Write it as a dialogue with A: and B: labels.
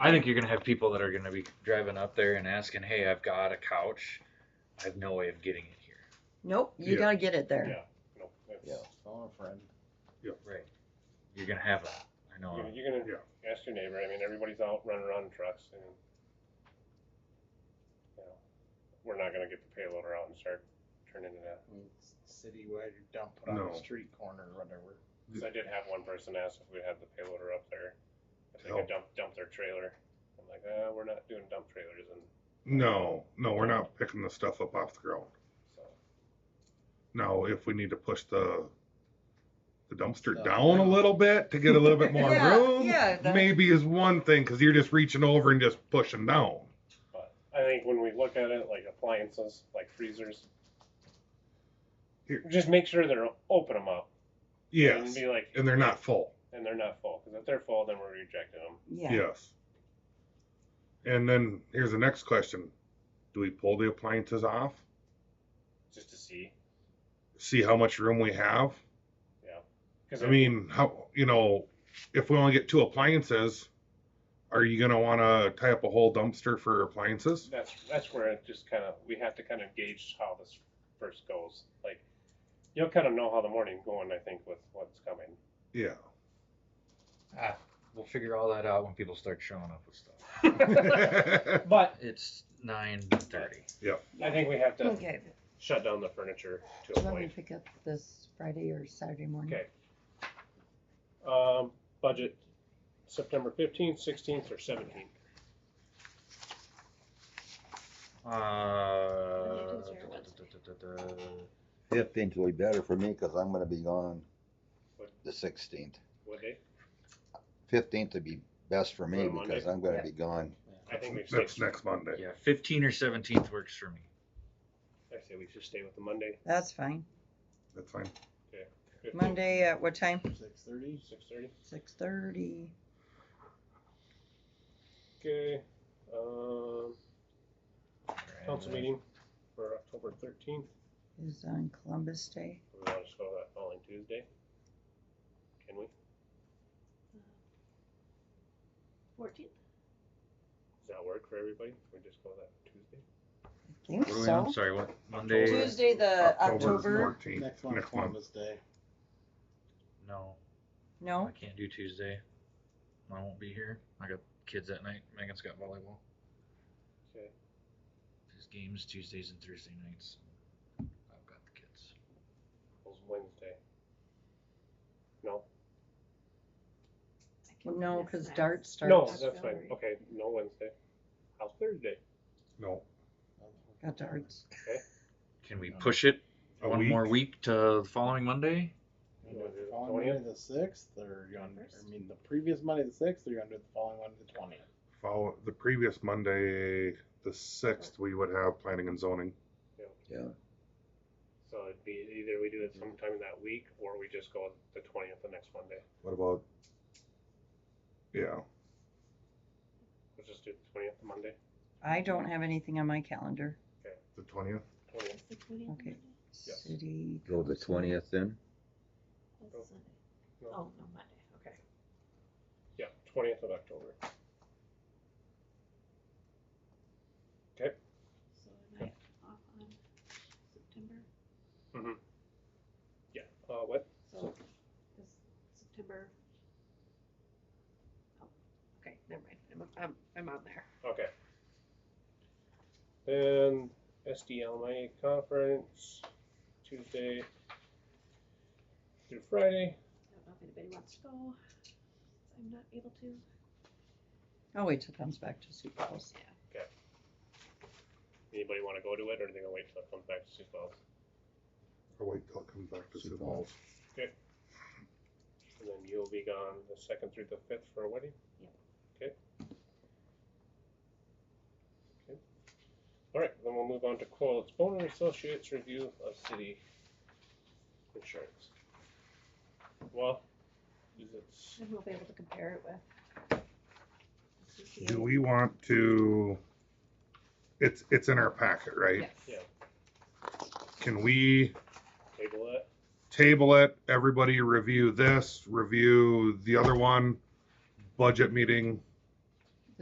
A: I think you're gonna have people that are gonna be driving up there and asking, "Hey, I've got a couch. I have no way of getting it here."
B: Nope, you
C: Yeah.
B: gotta get it there.
C: Yeah, no,
D: Yeah,
C: that's,
D: phone a friend.
A: Right. You're gonna have that. I know.
C: you're- you're gonna ask your neighbor, I mean, everybody's out running around in trucks and, you know, we're not gonna get the payloader out and start turning it out.
D: I mean, s- citywide or dump it on
E: No.
D: the street corner or whatever.
C: Cause I did have one person ask if we had the payloader up there, if they could dump, dump their trailer. I'm like, uh, we're not doing dump trailers and
E: No, no, we're not picking the stuff up off the ground.
C: so.
E: Now, if we need to push the the dumpster
D: Stuff
E: down a
D: down.
E: little bit to get a little bit more
B: Yeah,
E: room,
B: yeah, that-
E: maybe is one thing because you're just reaching over and just pushing down.
C: But I think when we look at it, like appliances, like freezers,
E: Here.
C: just make sure they're open them up. And
E: Yes,
C: be like,
E: and they're not full.
C: and they're not full, because if they're full, then we're rejecting them.
B: Yeah,
E: Yes. And then here's the next question: Do we pull the appliances off?
C: just to see.
E: See how much room we have.
C: Because
E: I mean, how you know, if we only get two appliances, are you gonna want to tie up a whole dumpster for appliances?
C: that's that's where it just kind of we have to kind of gauge how this first goes. Like you'll kind of know how the morning going. I think with what's coming.
E: Yeah.
A: Ah, we'll figure all that out when people start showing up with stuff.
C: But
A: It's nine thirty.
C: I think we have to
B: okay,
C: shut down the furniture to a
B: let me
C: point.
B: pick up this Friday or Saturday morning.
C: Okay. Um, budget September fifteenth, sixteenth, or seventeenth.
A: Uh,
F: Fifteenth will be better for me because I'm gonna be gone
C: What?
F: the sixteenth.
C: What day?
F: Fifteenth would be best for
C: On
F: me
C: a Monday?
F: because I'm gonna
B: Yeah.
F: be gone.
C: I think we stay.
E: That's next Monday.
A: yeah, fifteen or seventeenth works for me.
C: I say we should stay with the Monday.
B: That's fine.
E: That's fine.
B: Monday at what time?
D: Six thirty.
C: Six thirty.
B: Six thirty.
C: Okay. Um,
E: uh,
C: council meeting for October thirteenth.
B: is on Columbus Day.
C: We want to just go that following Tuesday? Can we?
G: Fourteenth?
C: Does that work for everybody? Can we just go that Tuesday?
B: I think
A: What are we on?
B: so.
A: Sorry, what Monday?
C: Tues-
B: Tuesday, the
E: October's
B: Uh, October,
E: 14th.
D: Next one,
E: Next month.
D: Columbus Day.
A: No, I
B: no,
A: can't do Tuesday. I won't be here. I got kids that night. Megan's got volleyball.
C: Okay.
A: There's games Tuesdays and Thursday nights. I've got the kids.
C: It's Wednesday. No?
B: no, cause dart
C: No,
B: starts,
C: that's fine. Okay, no Wednesday. How's Thursday?
E: No.
B: got darts.
A: Can we push it
E: A
A: one
E: week?
A: more week to the following Monday?
D: You wanna do it the Following Monday the sixth, or you on?
G: First?
D: I mean, the previous Monday the sixth, or you on the following one the twentieth?
E: Follow the previous Monday, the sixth. We would have planning and zoning.
C: So it'd be either we do it sometime that week or we just go the twentieth the next Monday.
E: What about? Yeah.
C: Let's just do the twentieth Monday.
B: I don't have anything on my calendar.
E: The twentieth.
C: Twentieth.
B: Okay.
C: Yes.
B: City.
F: Go the
B: council.
F: twentieth then?
C: Oh. No.
G: Oh, no, Monday, okay.
C: Yeah, twentieth of October.
G: So am I off on September?
C: Yeah. Uh, what?
G: So is September? Oh, okay, never mind. I'm, I'm, I'm on there.
C: Okay. Then SDLMA conference, Tuesday through Friday.
G: I don't know if anybody wants to go. I'm not able to.
B: I'll Oh, wait till it comes back to Sioux Falls.
C: Anybody want to go to it, or do they gonna wait till it comes back to Sioux Falls?
E: Or Oh, wait till it comes back to
D: Sioux
E: Sioux
D: Falls.
E: Falls.
C: And then you'll be gone the second through the fifth for a wedding?
G: Yep.
C: Okay. Okay. All right, then we'll move on to Quotes, Boner Associates Review of City Insurance. Well, is it,
G: And we'll be able to compare it with. the
E: Do we want to? It's it's in our packet, right?
G: Yes.
C: Yeah.
E: Can we
C: table it?
E: table it? Everybody review this, review the other one, budget meeting,